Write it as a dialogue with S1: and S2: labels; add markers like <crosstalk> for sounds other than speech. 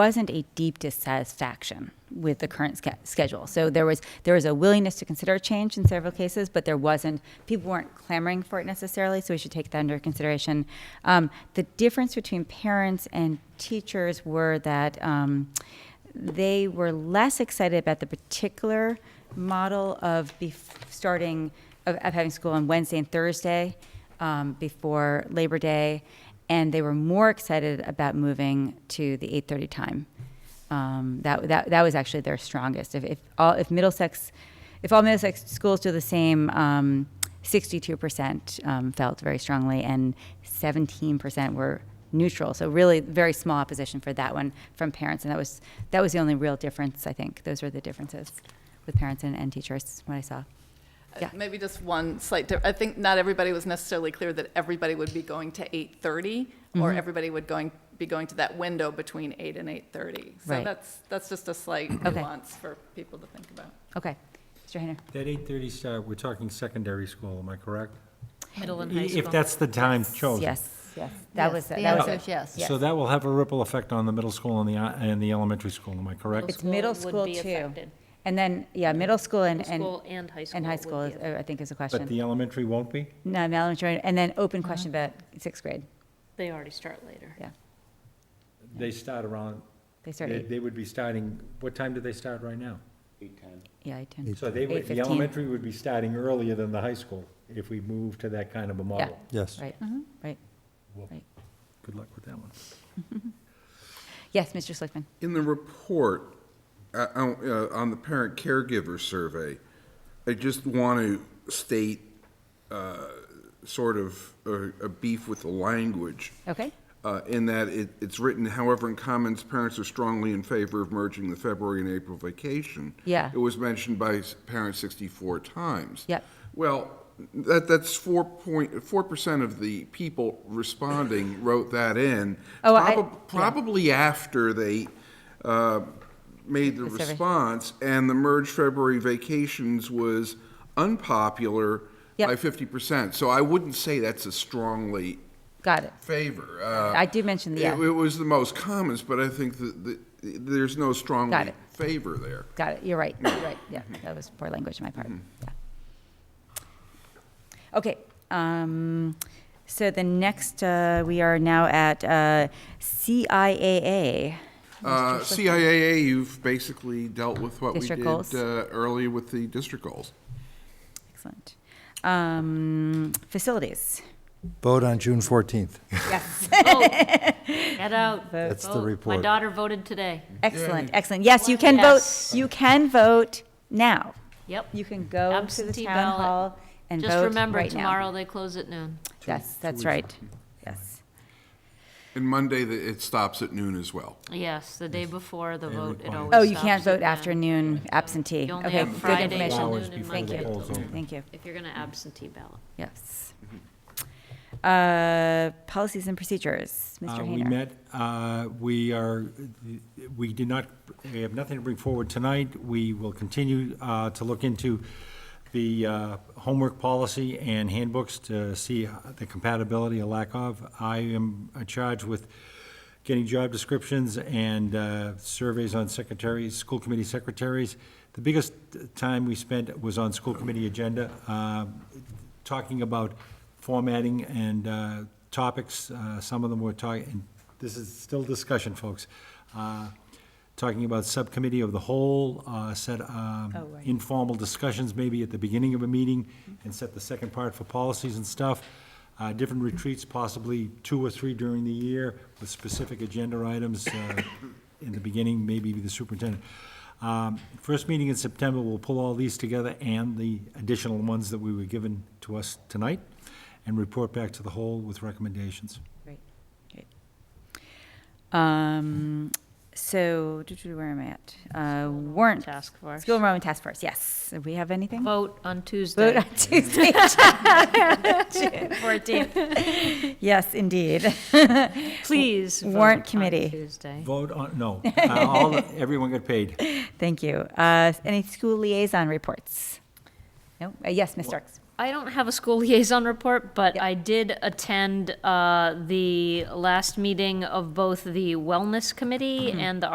S1: wasn't a deep dissatisfaction with the current sch- schedule. So there was there was a willingness to consider change in several cases, but there wasn't people weren't clamoring for it necessarily. So we should take that under consideration. Um, the difference between parents and teachers were that. Um, they were less excited about the particular model of bef- starting of, of having school on Wednesday and Thursday um, before Labor Day, and they were more excited about moving to the 8:30 time. Um, that, that that was actually their strongest. If, if all if Middlesex, if all Middlesex schools do the same. Um, 62% um, felt very strongly, and 17% were neutral. So really, very small opposition for that one from parents, and that was that was the only real difference. I think those were the differences with parents and, and teachers. What I saw. Yeah.
S2: Maybe just one slight, di- I think not everybody was necessarily clear that everybody would be going to 8:30,
S1: Mm-hmm.
S2: or everybody would going, be going to that window between 8 and 8:30. So
S1: Right.
S2: that's, that's just a slight nuance for people to think about.
S1: Okay, Mr. Hayner.
S3: That 8:30 start, we're talking secondary school, am I correct?
S4: Middle and high school.
S3: If that's the time chosen. Oh.
S1: Yes, yes, that
S4: Yes,
S1: was
S4: the
S1: that was
S4: answer
S1: it.
S4: is yes.
S3: So that will have a ripple effect on the middle school and the, uh, and the elementary school, am I correct?
S1: It's middle
S5: School would
S1: school
S5: be
S1: too,
S5: affected.
S1: and then yeah, middle school and and
S5: School and high school.
S1: and high
S5: would
S1: school.
S5: be
S1: Is,
S5: affected.
S1: uh, I think is a
S3: But
S1: question.
S3: the elementary won't be?
S1: No, elementary, and then
S5: Uh-huh.
S1: open question about sixth grade.
S5: They already start
S1: <laughs>
S5: later.
S1: Yeah,
S3: They start around,
S1: they start.
S3: they
S1: eight,
S3: they would be starting, what time do they start right now?
S1: yeah, eight, ten.
S3: So they would, the
S1: 8:15.
S3: elementary would be starting earlier than the high school if we move to that kind of a
S1: Yeah.
S3: model.
S6: Yes.
S1: Right.
S5: Uh-huh.
S1: Right.
S3: Well,
S1: Right.
S3: Good luck with that one.
S1: Yes, Mr. Slickman.
S7: In the report, uh, on uh, on the parent caregiver survey, I just want to state uh, sort of a a beef with the language
S1: Okay.
S7: uh, in that it, it's written, however, in comments, parents are strongly in favor of merging the February and April vacation.
S1: Yeah.
S7: It was mentioned by s- parents 64 times.
S1: Yep.
S7: Well, that, that's 4.4 percent of the people responding wrote that in.
S1: Oh, I-
S7: probab-
S1: yeah.
S7: Probably after they uh, made the
S1: The survey.
S7: response, and the merged February vacations was unpopular
S1: Yep.
S7: by 50 percent. So I wouldn't say that's a strongly
S1: Got it.
S7: favor. Uh,
S1: I did mention the,
S7: it-
S1: yeah.
S7: It was the most comments, but I think that, that there's no strong
S1: Got it.
S7: favor there.
S1: Got it. You're right. You're right. Yeah,
S3: Mm-hmm.
S1: that was poor language on my part. Yeah. Okay. Um, so the next, uh, we are now at uh, CIAA.
S7: Uh, CIAA, you've basically dealt with what we
S1: District
S7: did
S1: goals.
S7: uh, earlier with the district goals.
S1: Excellent. Um, facilities.
S6: Vote on June 14th.
S1: Yes.
S5: Oh, Get out.
S6: That's the
S5: Vote. My
S6: report.
S5: daughter voted today.
S1: <laughs> excellent. Excellent. Yes, you can vote. You can vote now.
S5: Yep.
S1: You can go to the
S5: Absentee
S1: town
S5: ballot.
S1: hall and
S5: Just
S1: vote
S5: remember,
S1: right now.
S5: tomorrow they close at noon.
S1: Yes, that's right. Yes.
S7: And Monday, the- it stops at noon as well.
S5: Yes, the day before the vote, it
S3: required.
S5: always
S1: Oh, you
S5: stops
S1: can't
S5: at
S1: vote
S5: noon.
S1: afternoon absentee.
S5: You only
S1: Okay,
S5: have
S1: good
S5: Friday
S1: information.
S5: till
S3: Hours
S5: noon and
S3: before the
S5: Monday Mm-hmm. till
S3: polls
S5: noon.
S3: open.
S1: Thank you.
S5: If you're going to absentee ballot.
S1: Yes. Uh, Policies and procedures, Mr.
S3: Uh,
S1: Hayner.
S3: We met, uh, we are, we did not, we have nothing to bring forward tonight. We will continue uh, to look into the uh, homework policy and handbooks to see the compatibility or lack of. I am charged with getting job descriptions and uh, surveys on secretaries, school committee secretaries. The biggest time we spent was on school committee agenda, uh, talking about formatting and uh, topics. Uh, Some of them were talking, this is still discussion, folks. Uh, Talking about subcommittee of the whole, uh, set um,
S1: Oh, right.
S3: informal discussions maybe at the beginning of a meeting and set the second part for policies and stuff. Uh, Different retreats, possibly two or three during the year with specific agenda items uh, in the beginning, maybe the superintendent. Um, First meeting in September, we'll pull all these together and the additional ones that we were given to us tonight and report back to the whole with recommendations.
S1: Great, great. Um, So, doo-doo, where am I at? Uh, Warrant.
S5: Task force.
S1: School enrollment task force, yes. Do we have anything?
S5: Vote on
S1: Vote
S5: Tuesday.
S1: on Tuesday, June
S5: <laughs>
S1: <laughs> 14th. Yes, indeed. <laughs>
S5: Please. vote
S1: Warrant
S5: on
S1: committee.
S5: Tuesday.
S3: Vote on,
S1: <laughs>
S3: no, Uh, all, everyone got paid.
S1: Thank you. Uh, Any school liaison reports? No? Uh, Yes, Ms. Starks.
S5: I don't have a school <laughs> liaison report, but
S1: Yep.
S5: I did attend uh, the last meeting of both the Wellness Committee and the